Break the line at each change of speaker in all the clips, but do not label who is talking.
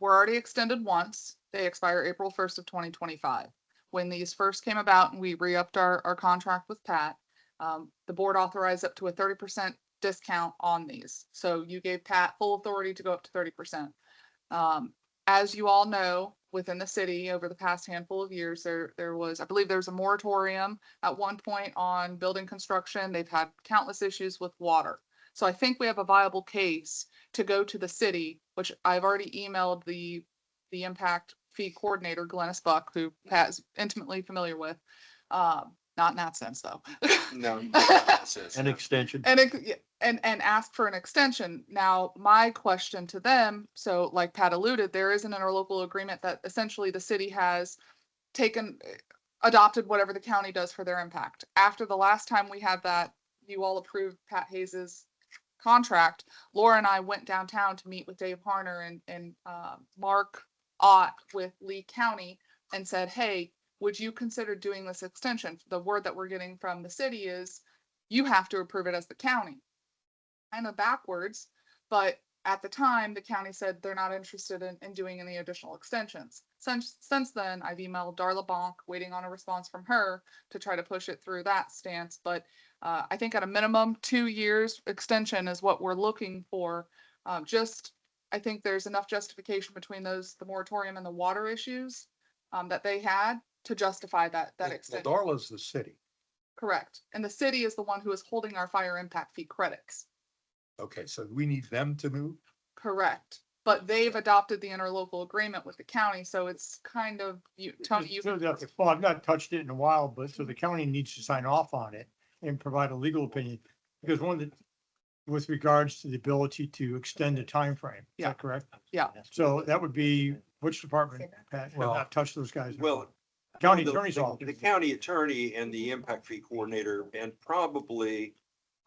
were already extended once. They expire April first of twenty twenty-five. When these first came about and we re-upped our, our contract with Pat, um, the board authorized up to a thirty percent discount on these. So you gave Pat full authority to go up to thirty percent. Um, as you all know, within the city, over the past handful of years, there, there was, I believe there was a moratorium at one point on building construction. They've had countless issues with water. So I think we have a viable case to go to the city, which I've already emailed the, the impact fee coordinator, Glennis Buck, who Pat's intimately familiar with. Um, not in that sense, though.
No. you don't have to say it's
An
not.
extension.
And it, yeah, and and ask for an extension. Now, my question to them, so like Pat alluded, there is an interlocal agreement that essentially the city has taken, eh, adopted whatever the county does for their impact. After the last time we had that, you all approved Pat Hayes's contract. Laura and I went downtown to meet with Dave Harner and and uh, Mark Ott with Lee County and said, hey, would you consider doing this extension? The word that we're getting from the city is you have to approve it as the county. Kind of backwards, but at the time, the county said they're not interested in, in doing any additional extensions. Since, since then, I've emailed Darla Bonk, waiting on a response from her to try to push it through that stance, but uh, I think at a minimum, two years extension is what we're looking for. Um, just, I think there's enough justification between those, the moratorium and the water issues um, that they had to justify that, that
Well,
extension.
Darla's the city.
Correct. And the city is the one who is holding our fire impact fee credits.
Okay, so we need them to move?
Correct. But they've adopted the interlocal agreement with the county, so it's kind of, you, Tony, you,
So the- Well, I've not touched it in a while, but so the county needs to sign off on it and provide a legal opinion. Because one of the, with regards to the ability to extend the timeframe, is
Yeah.
that correct?
Yeah.
So that would be, which department, Pat, I've
Well-
not touched those guys. in a
Well,
while. County
The-
attorney's
the-
office.
The county attorney and the impact fee coordinator, and probably,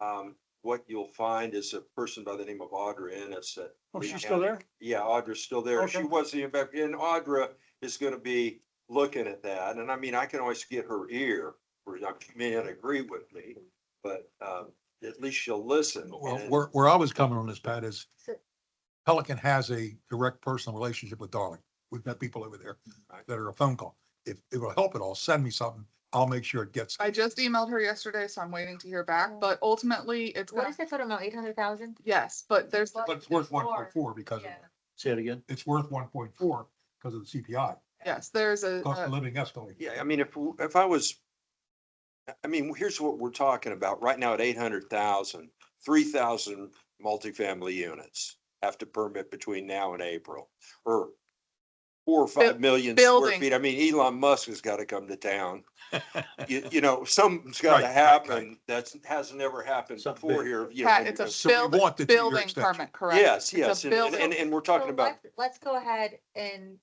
um, what you'll find is a person by the name of Audra Ennis at
Oh,
Lee
she's still
County.
there?
Yeah, Audra's still there. She
Okay.
was the impact, and Audra is gonna be looking at that, and I mean, I can always get her ear, where she may not agree with me, but, um, at least she'll listen.
Well,
and-
where, where I was coming on this, Pat, is Pelican has a direct personal relationship with Darling. We've got people over there
Right.
that are a phone call. If it will help at all, send me something. I'll make sure it gets.
I just emailed her yesterday, so I'm waiting to hear back, but ultimately it's
Oh. What
gonna,
is the total amount, eight hundred thousand?
yes, but there's,
But it's worth one point four because of,
Say it again.
it's worth one point four because of the CPI,
yes, there's a,
cost
a-
of living escalating.
Yeah, I mean, if, w- if I was, I- I mean, here's what we're talking about. Right now at eight hundred thousand, three thousand multifamily units have to permit between now and April, or four or five million square
building.
feet. I mean, Elon Musk has got to come to town. You, you know, something's got
Right,
to
right,
happen. That's, has never happened
Something
before
big.
here. you know,
Pat, it's a
because-
So we want
building,
the two-year
building
extension.
permit, correct?
Yes,
It's a
yes, and, and-
building.
and, and we're talking about,
Let's go ahead and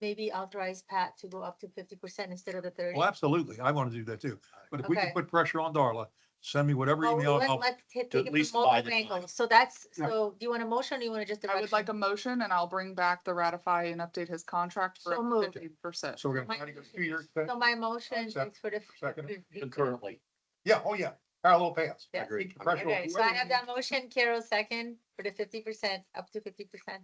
maybe authorize Pat to go up to fifty percent instead of the thirty.
Well, absolutely. I want to do that too. But if we can
Okay.
put pressure on Darla, send me whatever
Well,
email.
Oh, let-
I'll-
Let's hit- take it
least
from
buy the
multiple
time.
angles. So that's,
Right.
so do you want a motion or you want to just?
I would like a
direction?
motion and I'll bring back the ratify and update his contract for
So moved.
fifty percent.
So we're
My
going to. Two-year
So
extension?
my motion is
Second.
for the. mm,
Second.
Concurrently.
Yeah, oh yeah, parallel paths.
Yeah.
Agreed.
Pressure on
Okay, so I
whoever.
have that motion, Carol second, for the fifty percent, up to fifty percent.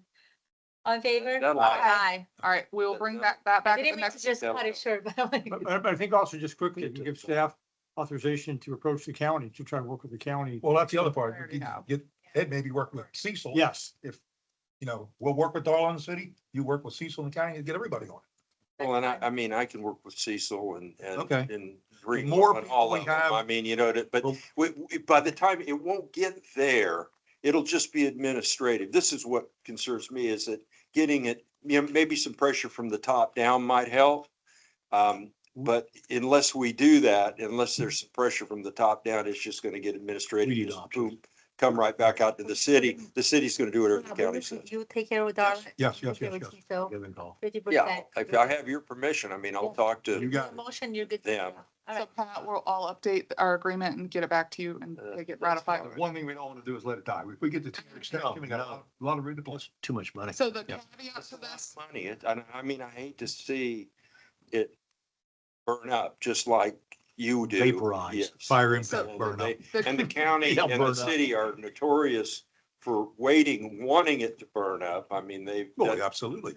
On favor?
That'll-
Aye.
All right, we'll
That-
bring
that-
back, that back
I
at the
didn't mean
next.
to just cut it short, but I'm like.
But, but but I think also just quickly,
Get to
to give
it.
staff authorization to approach the county, to try to work with the county.
Well, that's the other part.
Already
You can
have.
Get, Ed maybe work with Cecil.
Yes,
If, you know, we'll work with Darla in the city, you work with Cecil in the county, and get everybody on
well, and I, I mean, I can work with Cecil and, and.
Okay.
And Green
more
and all
people we
of them.
have-
I mean, you know, that- but
Well-
we, we- by the time, it won't get there. It'll just be administrative. This is what concerns me is that getting it, you know, maybe some pressure from the top down might help. Um,
Mm-hmm.
but unless we do that, unless there's some pressure from the top down, it's just gonna get administrative.
We need
Just
options.
boom, Come right back out to the city. The city's gonna do whatever the county says.
You take care of Darla.
Yes, yes, yes, yes.
So
Give and call.
fifty
Yeah,
percent.
if I have your permission, I mean, I'll
Yeah.
talk
it. You
to,
got it.
Motion, you're good. to
Yeah.
go. All
So
right.
Pat, we'll all update our agreement and get it back to you and
Uh,
they get
that's
ratified.
fine.
One thing we don't want to do is let it die. If we get the two-year extension, we got a lot- a lot of room to play.
That's too much money.
So the
Yeah.
caveat
That's
to
a lot of
this,
Money, It- I, I mean, I hate to see it burn up, just like you do.
Vaporize,
Yes.
Fire
So-
impact burn up.
They- And the county
Yeah,
and
burn
the
up.
city are notorious for waiting, wanting it to burn up. I mean, they,
Oh,
Well, absolutely.